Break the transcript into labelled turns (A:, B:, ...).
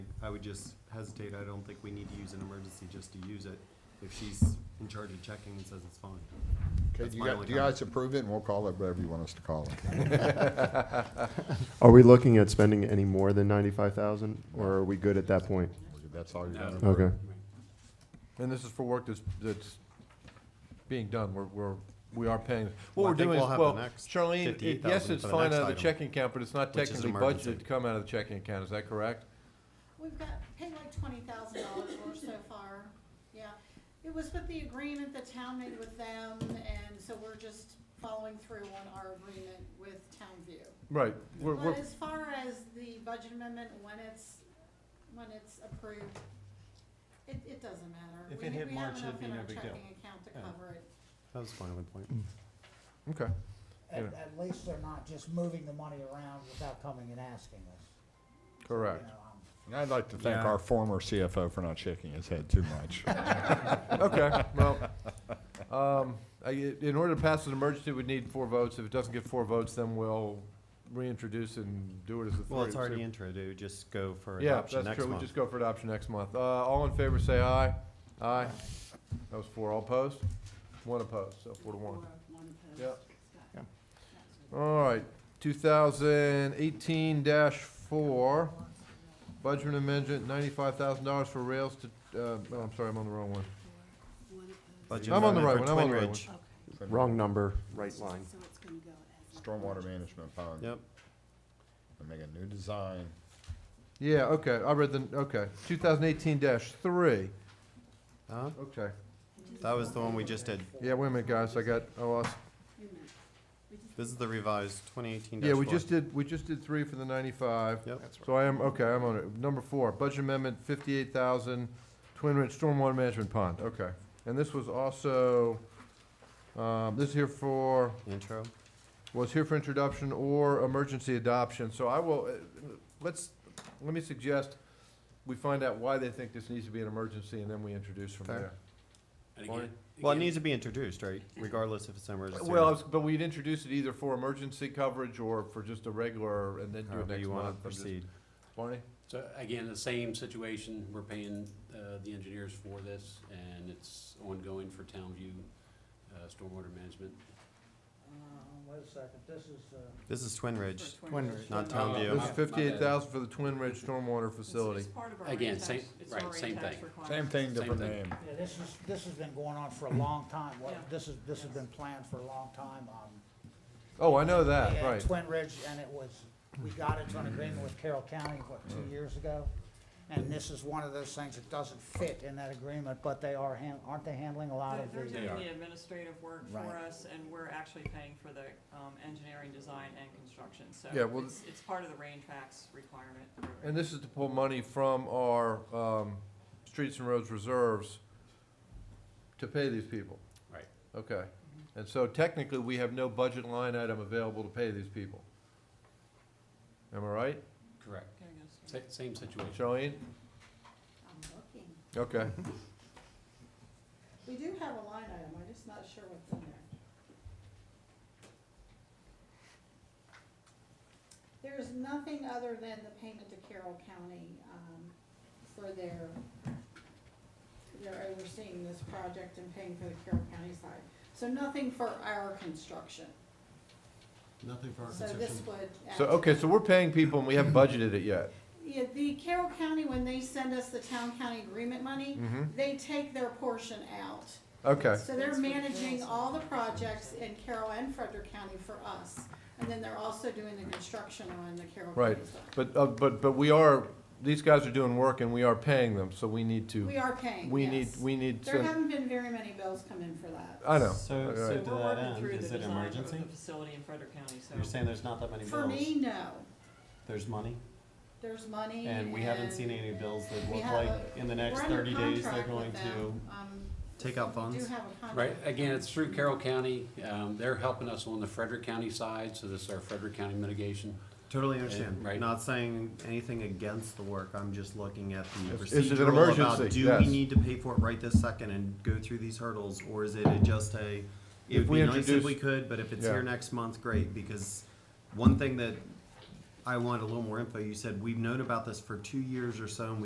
A: would just hesitate, I don't think we need to use an emergency just to use it. If she's in charge of checking and says it's fine.
B: Okay,
A: That's
B: do you
A: my
B: guys,
A: only
B: do you
A: comment.
B: guys approve it, and we'll call it whatever you want us to call it?
C: Are we looking at spending any more than ninety-five thousand, or are we good at that point?
B: That's all you're
A: No.
B: gonna approve?
C: Okay.
D: And this is for work that's, that's being done, we're, we're, we are paying.
A: Well,
D: What
A: I
D: we're
A: think
D: doing is,
A: we'll have the
D: well,
A: next
D: Charlene, it-
A: 58,000
D: yes, it's
A: for the
D: fine
A: next
D: out of the
A: item,
D: checking account, but it's not
A: which is
D: technically
A: emergency.
D: budgeted to come out of the checking account, is that correct?
E: We've got, paid like twenty thousand dollars worth so far, yeah. It was with the agreement the town made with them, and so we're just following through on our agreement with Townview.
D: Right, we're, we're,
E: But as far as the budget amendment, when it's, when it's approved, it, it doesn't matter.
F: If
E: We-
F: it hit March, it'd be
E: We
F: no
E: have
F: big
E: enough in our
F: deal.
E: checking account to
F: Yeah.
E: cover it.
A: That was a valid point.
D: okay,
G: At,
D: Yeah.
G: at least they're not just moving the money around without coming and asking us. You
D: correct.
G: know, um,
B: And I'd like to thank
A: Yeah.
B: our former CFO for not shaking his head too much.
D: Okay, well, um, I, in order to pass an emergency, we'd need four votes. If it doesn't get four votes, then we'll reintroduce and do it as a three.
A: Well, it's
D: So-
A: already intro, it would just go for
D: Yeah,
A: adoption
D: that's
A: next
D: true, we
A: month.
D: just go for adoption next month. Uh, all in favor, say aye. Aye. That was four, all opposed? One opposed, so four to one. Yep. All right, two thousand eighteen four, budget amendment, ninety-five thousand dollars for rails to, uh, no, I'm sorry, I'm on the wrong one.
A: Budget
D: I'm on the
A: amendment
D: right
A: for
D: one,
A: Twin
D: I'm on the right
A: Ridge.
C: Wrong number, right line.
B: Stormwater management pond,
A: Yep,
B: and make a new design.
D: Yeah, okay, I read the, okay, two thousand eighteen three,
A: Huh?
D: okay.
A: that was the one we just did.
D: Yeah, wait a minute, guys, I got, I lost.
A: This is the revised twenty eighteen
D: Yeah, we just did, we just did three for the ninety-five.
A: Yep.
D: So I am, okay, I'm on it. Number four, budget amendment fifty-eight thousand, Twin Ridge Stormwater Management Pond, okay. And this was also, um, this is here for,
A: Intro.
D: was here for introduction or emergency adoption, so I will, uh, let's, let me suggest we find out why they think this needs to be an emergency, and then we introduce from
A: Fair.
D: there.
A: Well, it needs to be introduced, right? Regardless if it's an emergency. or
D: Well, I
A: not.
D: was- but we'd introduce it either for emergency coverage or for just a regular, and then do it
A: However
D: next
A: you want
D: month.
A: to
D: I'm just-
A: proceed.
D: Barney?
H: So again, the same situation, we're paying uh, the engineers for this, and it's ongoing for Townview uh, Stormwater Management.
G: uh, Wait a second, this is, uh,
A: This is Twin Ridge, not
H: Uh,
A: Townview.
D: This
H: my-
D: is
H: my
D: fifty-eight
H: bad.
D: thousand for the Twin Ridge Stormwater Facility.
H: Again, same- right, same thing.
B: Same thing, different
H: thing.
B: name.
G: yeah, this is, this has been going on for a long time. What-
I: Yeah.
G: This is, this has been planned for a long time. um,
D: Oh, I know
G: we
D: that,
G: had
D: right.
G: Twin Ridge, and it was, we got into an agreement with Carroll County, what, two years ago? And this is one of those things that doesn't fit in that agreement, but they are, han- aren't they handling a lot of
I: They're
G: the?
I: doing the administrative work for
G: Right.
I: us, and we're actually paying for the, um, engineering, design, and construction, so
D: Yeah, well-
I: it's, it's part of the rain tracks requirement.
D: And this is to pull money from our, um, streets and roads reserves to pay these people.
H: Right.
D: Okay. And so technically, we have no budget line item available to pay these people. Am I right?
H: Correct.
I: Okay, I guess.
H: Sa- Same situation.
D: Charlene?
E: I'm looking.
D: Okay.
E: We do have a line item, I'm just not sure what's in there. There's nothing other than the payment to Carroll County, um, for their, they're overseeing this project and paying for the Carroll County side. So nothing for our construction.
F: Nothing for our
E: So
F: consumption.
E: this would.
D: So,
E: actually-
D: okay, so we're paying people and we haven't budgeted it yet.
E: Yeah, the Carroll County, when they send us the town county agreement money,
D: Mhm.
E: they take their portion out.
D: Okay.
E: So they're
I: That's what
E: managing
I: Carroll's
E: all the projects in Carroll and Frederick County for us, and then they're also doing the construction on the Carroll
D: Right.
E: County side.
D: But, uh, but, but we are, these guys are doing work and we are paying them, so we need to,
E: We are paying,
D: we need,
E: yes.
D: we need
E: There
D: to,
E: haven't been very many bills come in for that.
D: I know.
F: So,
D: Alright.
F: so
I: So
F: to
I: we're
F: that
I: working
F: end,
I: through
F: is
I: the
F: it
I: design of
F: emergency?
I: the facility in Frederick County, so.
F: You're saying there's not that many
E: For
F: bills?
E: me, no.
F: There's money,
E: There's money and.
F: and we haven't seen any bills that
E: we
F: look
E: have
F: like
E: a-
F: in the next
E: we're under
F: thirty days, they're
E: contract
F: going
E: with
F: to.
E: them, um,
A: Take out
E: we
A: funds?
E: Do have a contract.
H: Right, again,
E: with
H: it's through Carroll County. Um, They're helping us on the Frederick County side, so this is our Frederick County mitigation.
A: Totally understand.
H: Right.
A: Not saying anything against the work. I'm just looking at the
D: Is- is it an
A: procedural about,
D: emergency?
A: do we
D: Yes.
A: need to pay for it right this second and go through these hurdles? Or is it a- just a, it
D: If
A: would
D: we
A: be nice if
D: introduce-
A: we could, but if it's
D: Yeah.
A: here next month, great. Because one thing that I want a little more info, you said, we've known about this for two years or so and